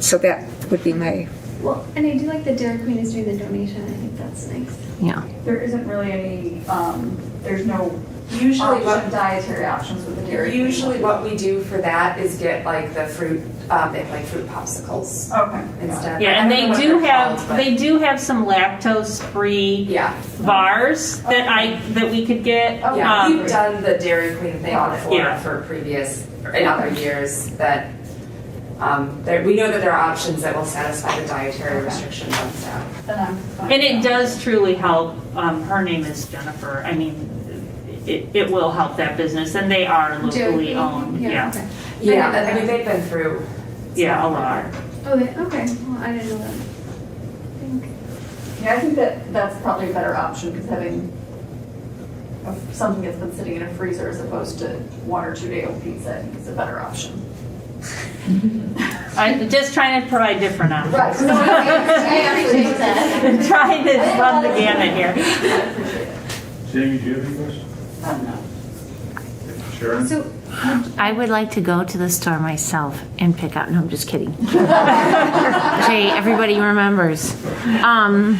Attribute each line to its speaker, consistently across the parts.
Speaker 1: so that would be my,
Speaker 2: Well,
Speaker 3: And I do like that Dairy Queen is doing the donation. I think that's nice.
Speaker 1: yeah.
Speaker 4: There isn't really any, um, there's no
Speaker 5: Usually
Speaker 4: option,
Speaker 5: what,
Speaker 4: dietary options with the Dairy Queen.
Speaker 5: usually what we do for that is get like the fruit, um, and like fruit popsicles
Speaker 4: Okay.
Speaker 5: instead.
Speaker 6: Yeah,
Speaker 5: I
Speaker 6: and
Speaker 5: don't know
Speaker 6: they
Speaker 5: what
Speaker 6: do
Speaker 5: they're
Speaker 6: have,
Speaker 5: called, but-
Speaker 6: they do have some lactose-free
Speaker 5: Yeah,
Speaker 6: bars that I, that we could get.
Speaker 4: Okay.
Speaker 5: yeah,
Speaker 6: Um,
Speaker 5: we've done the Dairy Queen thing
Speaker 4: Got it.
Speaker 5: before
Speaker 6: Yeah.
Speaker 5: for previous, in other years that, um, there, we know that there are options that will satisfy the dietary
Speaker 4: Okay.
Speaker 5: restrictions on staff.
Speaker 4: Then I'm fine.
Speaker 6: And it does truly help, um, her name is Jennifer, I mean, it, it will help that business, and they are
Speaker 3: Dairy
Speaker 6: locally
Speaker 3: Queen?
Speaker 6: owned, yeah,
Speaker 3: okay.
Speaker 5: Yeah, I mean, they've been through.
Speaker 6: yeah, a lot.
Speaker 3: Oh, they, okay. Well, I didn't know that. Thank-
Speaker 4: Yeah, I think that that's probably a better option, because having a- something that's been sitting in a freezer as opposed to one or two day old pizza, I think is a better option.
Speaker 6: I'm just trying to provide different options.
Speaker 4: Right.
Speaker 3: No, I appreciate that.
Speaker 6: Trying to run the gamut here.
Speaker 4: I appreciate it.
Speaker 2: Jamie, do you have any questions?
Speaker 4: I don't know.
Speaker 2: Sharon?
Speaker 3: So,
Speaker 7: I would like to go to the store myself and pick out. No, I'm just kidding. Jay, everybody remembers. Um,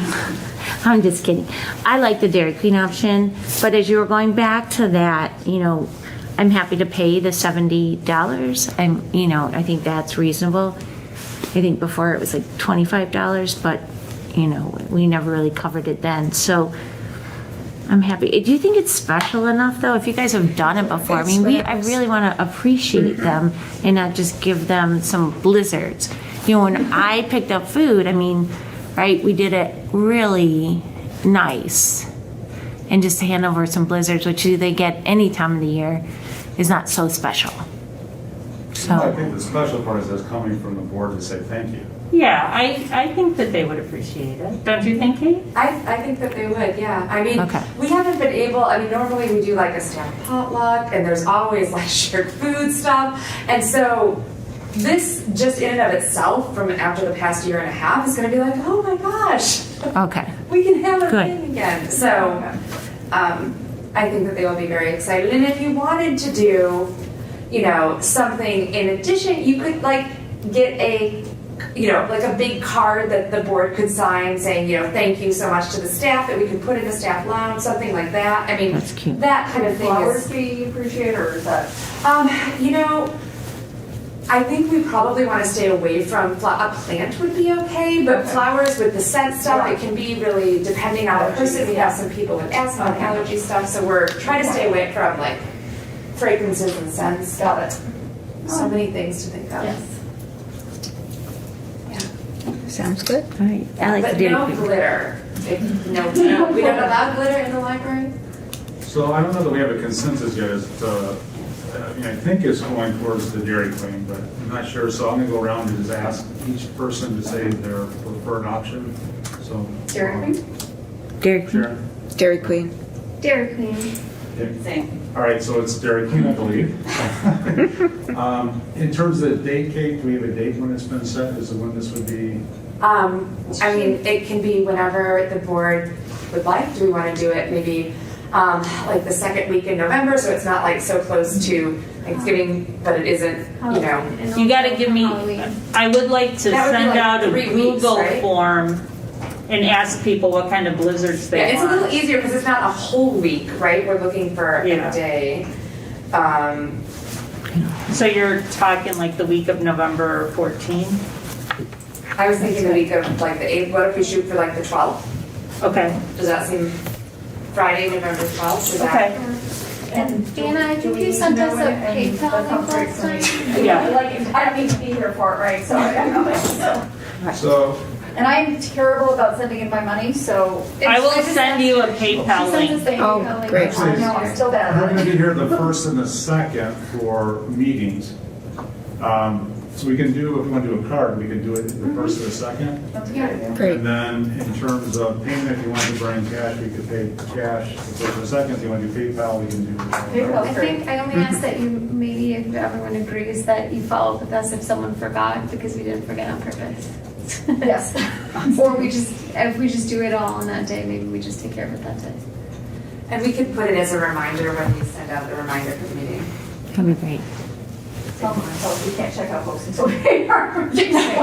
Speaker 7: I'm just kidding. I like the Dairy Queen option, but as you were going back to that, you know, I'm happy to pay the seventy dollars. I'm, you know, I think that's reasonable. I think before it was like twenty-five dollars, but you know, we never really covered it then. So I'm happy. Do you think it's special enough though? If you guys have done it before, I
Speaker 1: It's
Speaker 7: mean, we,
Speaker 1: what I
Speaker 7: I
Speaker 1: was-
Speaker 7: really want to appreciate them and not just give them some blizzards. You know, when I picked up food, I mean, right, we did it really nice. And just to hand over some blizzards, which they get any time of the year, is not so special.
Speaker 2: I
Speaker 7: So,
Speaker 2: think the special part is us coming from the board to say thank you.
Speaker 6: Yeah, I, I think that they would appreciate it, don't you think, Kate?
Speaker 5: I, I think that they would, yeah. I mean,
Speaker 7: Okay.
Speaker 5: we haven't been able, I mean, normally we do like a staff potluck and there's always like shared food stuff. And so this just in and of itself from after the past year and a half is going to be like, oh my gosh,
Speaker 7: okay.
Speaker 5: we can have a
Speaker 7: Good.
Speaker 5: thing again. So um, I think that they will be very excited. And if you wanted to do, you know, something in addition, you could like get a, you know, like a big card that the board could sign saying, you know, thank you so much to the staff that we could put in the staff lounge, something like that. I mean,
Speaker 7: That's cute.
Speaker 5: that kind of thing
Speaker 4: Flowers
Speaker 5: is.
Speaker 4: be appreciated, or is that?
Speaker 5: Um, you know, I think we probably want to stay away from fl- a plant would be okay, but flowers with the scent stuff, it can be really depending on the person. We have some people with asthma and allergy stuff, so we're trying to stay away from like fragrances and scents. Got it. So many things to think of.
Speaker 1: Sounds good.
Speaker 7: All right. I like the
Speaker 5: but
Speaker 7: Dairy
Speaker 5: no
Speaker 7: Queen.
Speaker 5: glitter. If- no, no, we don't allow glitter in the library.
Speaker 2: So I don't know that we have a consensus yet as to, uh, I mean, I think it's going towards the Dairy Queen, but I'm not sure. So I'm gonna go around and just ask each person to say their preferred option, so.
Speaker 4: Dairy Queen?
Speaker 7: Dairy Queen.
Speaker 2: Sharon?
Speaker 1: Dairy Queen.
Speaker 3: Dairy Queen.
Speaker 4: Same.
Speaker 2: All right, so it's Dairy Queen, I believe. Um, In terms of the date, Kate, do we have a date when it's been set? Is it when this would be?
Speaker 5: Um, I mean, it can be whenever the board would like. Do we want to do it maybe um, like the second week in November, so it's not like so close to Thanksgiving, but it isn't,
Speaker 6: Oh.
Speaker 5: you know.
Speaker 3: And
Speaker 6: You gotta
Speaker 3: also
Speaker 6: give me,
Speaker 3: Halloween.
Speaker 6: I would like to
Speaker 5: That would be
Speaker 6: send
Speaker 5: like
Speaker 6: out a
Speaker 5: three weeks,
Speaker 6: Google
Speaker 5: right?
Speaker 6: form and ask people what kind of blizzards
Speaker 5: Yeah,
Speaker 6: they
Speaker 5: it's a little
Speaker 6: want.
Speaker 5: easier because it's not a whole week, right? We're looking for
Speaker 6: Yeah.
Speaker 5: a day. Um, e-
Speaker 6: So you're talking like the week of November 14?
Speaker 5: I was thinking the week of like the eighth, what if we shoot for like the twelfth?
Speaker 6: Okay,
Speaker 5: Does that seem Friday, November twelfth?
Speaker 6: okay,
Speaker 4: And do-
Speaker 3: Uh, Anna, I
Speaker 4: do
Speaker 3: think
Speaker 4: we
Speaker 3: you sent
Speaker 4: know
Speaker 3: us a
Speaker 4: when- and
Speaker 3: PayPal
Speaker 4: that sounds
Speaker 3: link
Speaker 4: great
Speaker 3: last
Speaker 4: to me.
Speaker 6: time. Yeah.
Speaker 4: Like, I don't need to be here for it, right, so I don't know, so.
Speaker 2: So
Speaker 4: And I'm terrible about sending in my money, so.
Speaker 6: I will
Speaker 3: It's-
Speaker 6: send you a
Speaker 4: She
Speaker 6: PayPal
Speaker 4: sends
Speaker 6: link.
Speaker 4: us the
Speaker 1: Oh,
Speaker 4: PayPal link.
Speaker 1: great.
Speaker 4: I know, I'm still bad
Speaker 2: We're
Speaker 4: at
Speaker 2: gonna
Speaker 4: it.
Speaker 2: be here the first and the second for meetings. Um, So we can do, if we want to do a card, we can do it the first or the second.
Speaker 4: That's a good idea.
Speaker 1: Great.
Speaker 2: And then in terms of payment, if you want to bring cash, we could pay cash the first or second. If you want to do PayPal, we can do.
Speaker 4: PayPal.
Speaker 3: I think I only ask that you, maybe if everyone agrees, that you follow up with us if someone forgot, because we didn't forget on purpose.
Speaker 4: Yes.
Speaker 3: Or we just, if we just do it all on that day, maybe we just take care of it that day.
Speaker 5: And we could put it as a reminder when we send out the reminder for the meeting.
Speaker 7: That'd be great.
Speaker 6: Oh,
Speaker 4: Tell myself we can't check out books until we pay our.